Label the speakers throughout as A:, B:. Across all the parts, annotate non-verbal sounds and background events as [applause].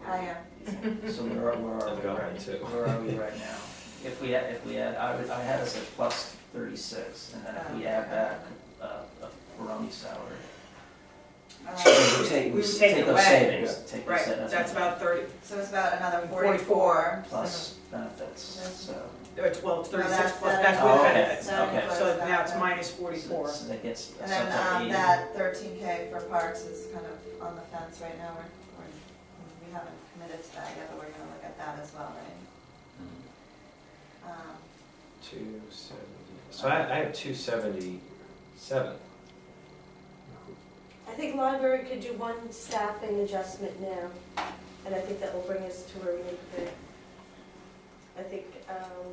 A: [laughs] So where are, where are
B: I've
A: we
B: got
A: right,
B: one too.
A: where are we right now? If we had, if we had, I, would- I had us at plus thirty-six, and then if we add back, uh, a Barone salary.
C: Uh,
D: Um,
A: We take,
C: We
A: we
C: would take
A: take those
C: away.
A: savings, take those
C: Right,
A: savings.
C: that's about thirty,
D: So it's about another
C: Forty-four.
D: forty-four.
A: Plus benefits, so.
C: or uh, twelve, thirty-six
D: that's-
C: plus,
D: that
C: that's
A: Oh,
C: with
A: okay.
C: benefits.
D: That
A: Okay.
D: includes
C: So
D: that.
C: now it's minus
A: so-
C: forty-four.
A: So that gets
D: And
A: us
D: then,
A: up to
D: um,
A: eighty.
D: that thirteen K for parks is kind of on the fence right now, we're, we're, we haven't committed to that yet, but we're gonna look at that as well, right? Um,
B: Two seventy, so I, I have two seventy-seven.
E: I think library could do one staffing adjustment now, and I think that will bring us to where we need to be. I think, um,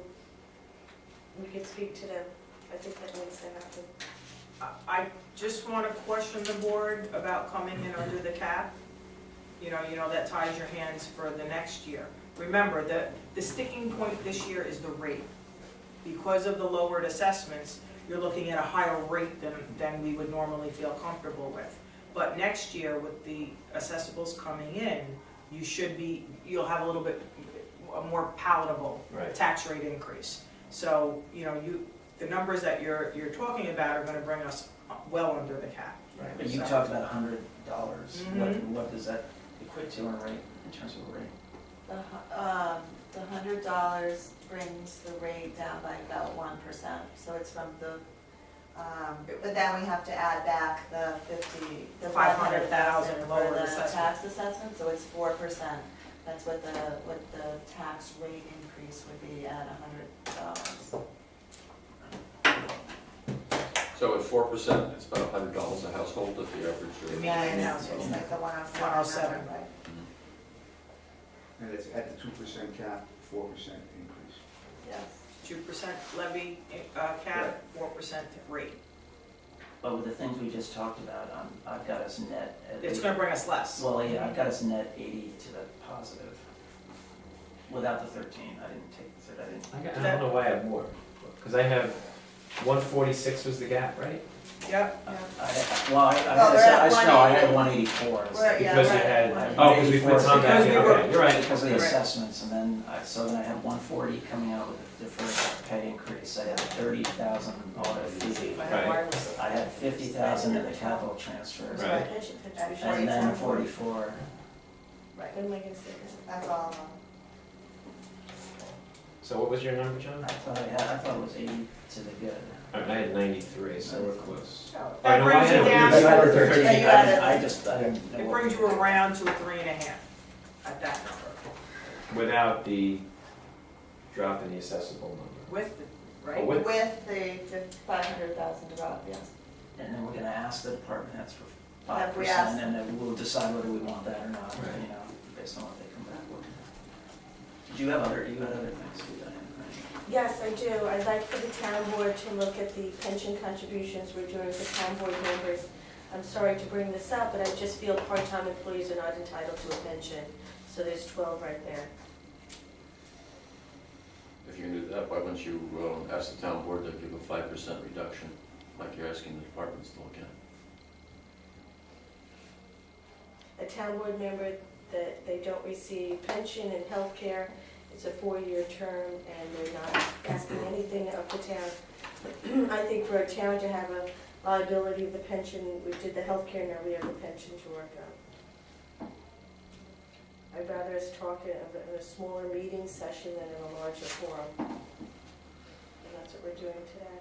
E: we could speak to them, I think that needs to happen.
C: I- I just want to question the board about coming in under the cap. You know, you know, that ties your hands for the next year. Remember, the, the sticking point this year is the rate. Because of the lowered assessments, you're looking at a higher rate than, than we would normally feel comfortable with. But next year, with the assessables coming in, you should be, you'll have a little bit, a more palatable
B: Right.
C: tax rate increase. So, you know, you, the numbers that you're, you're talking about are gonna bring us well under the cap.
B: Right.
A: But you talked about a hundred dollars, what,
C: Mhm.
A: what does that equate to in rate, in terms of rate?
D: The, hu- um, the hundred dollars brings the rate down by about one percent, so it's from the, um, but then we have to add back the fifty, the five hundred thousand
C: 500,000
D: for
C: lower
D: the
C: assessment.
D: tax assessment, so it's four percent. That's what the, what the tax rate increase would be at a hundred dollars.
F: So at four percent, it's about hundred dollars a household at the average. uh, or-
C: The median household.
D: It's like the one oh seven.
C: 107.
G: And it's at the two percent cap, four percent increase.
D: Yes.
C: Two percent levy, uh, cap, four percent rate.
A: But with the things we just talked about, um, I've got us net at
C: It's
A: least-
C: gonna bring us less.
A: Well, yeah, I've got us net eighty to the positive. Without the thirteen, I didn't take the third, I didn't
B: I got- I don't know why I have more, because I have, one forty-six was the gap, right?
C: Yep.
A: I, well, I, I
D: Well, we're at
A: had, I, no, I had
D: 180.
A: one eighty-four.
D: We're- yeah,
B: Because you
D: we're at
B: had,
D: one.
B: oh, because we put some back in,
C: Because we were-
B: okay, you're right.
A: Because of the
C: Right.
A: assessments, and then, I- so then I had one forty coming out with a deferred pay increase, I had thirty thousand audit fee.
C: I have
B: Right.
C: wireless.
A: I had fifty thousand in the capital transfers,
B: Right.
E: Pension contribution.
A: and then forty-four.
D: Right,
E: When am I gonna say that?
D: that's all of them.
B: So what was your number,
A: I
B: John?
A: thought I had, I thought it was eighty to the good.
B: All right, I had ninety-three, so we're close.
C: That
B: Oh, no, I
C: brings you
B: had a
C: down,
A: But you
B: reason.
C: it
A: had the 13,
D: Yeah, you added-
A: I, I just, I didn't know what-
C: brings you around to a three and a half at that number.
B: Without the drop in the accessible number.
C: With,
B: Oh,
C: right?
B: with-
D: With the five hundred thousand drop, yes.
A: And then we're gonna ask the department heads for five
D: Have we
A: percent,
D: asked
A: and then we'll decide whether we want that or not,
B: Right.
A: you know, based on what they come back with. Did you have other, you had other things to do, Diane, right?
E: Yes, I do. I'd like for the town board to look at the pension contributions we're doing for town board members. I'm sorry to bring this up, but I just feel part-time employees are not entitled to a pension, so there's twelve right there.
F: If you can do that, why wouldn't you um, ask the town board to give a five percent reduction, like you're asking the departments to look at?
E: a town board member that they don't receive pension and health care. It's a four-year term and they're not asking anything of the town. [clears throat] I think for a town to have a liability of the pension, we did the health care, now we have the pension to work on. I'd rather us talk in a, in a smaller meeting session than in a larger forum. And that's what we're doing today.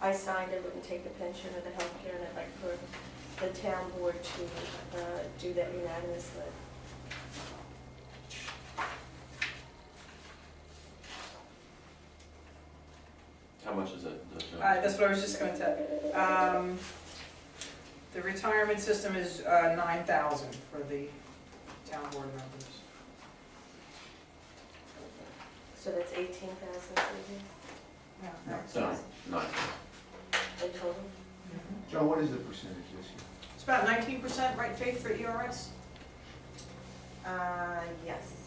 E: I signed, I wouldn't take the pension or the health care, and I'd like for the town board to uh, do that unanimously.
F: How much is that? the- the-
C: Uh, that's what I was just gonna tell you. Um, the retirement system is, uh, nine thousand for the town board members.
E: So that's eighteen thousand savings
C: Yeah.
F: No, nine.
E: in total.
G: John, what is the percentage this year?
C: E It's about nineteen percent, right, Faith, for ERS?
D: Uh, yes. mm-hmm,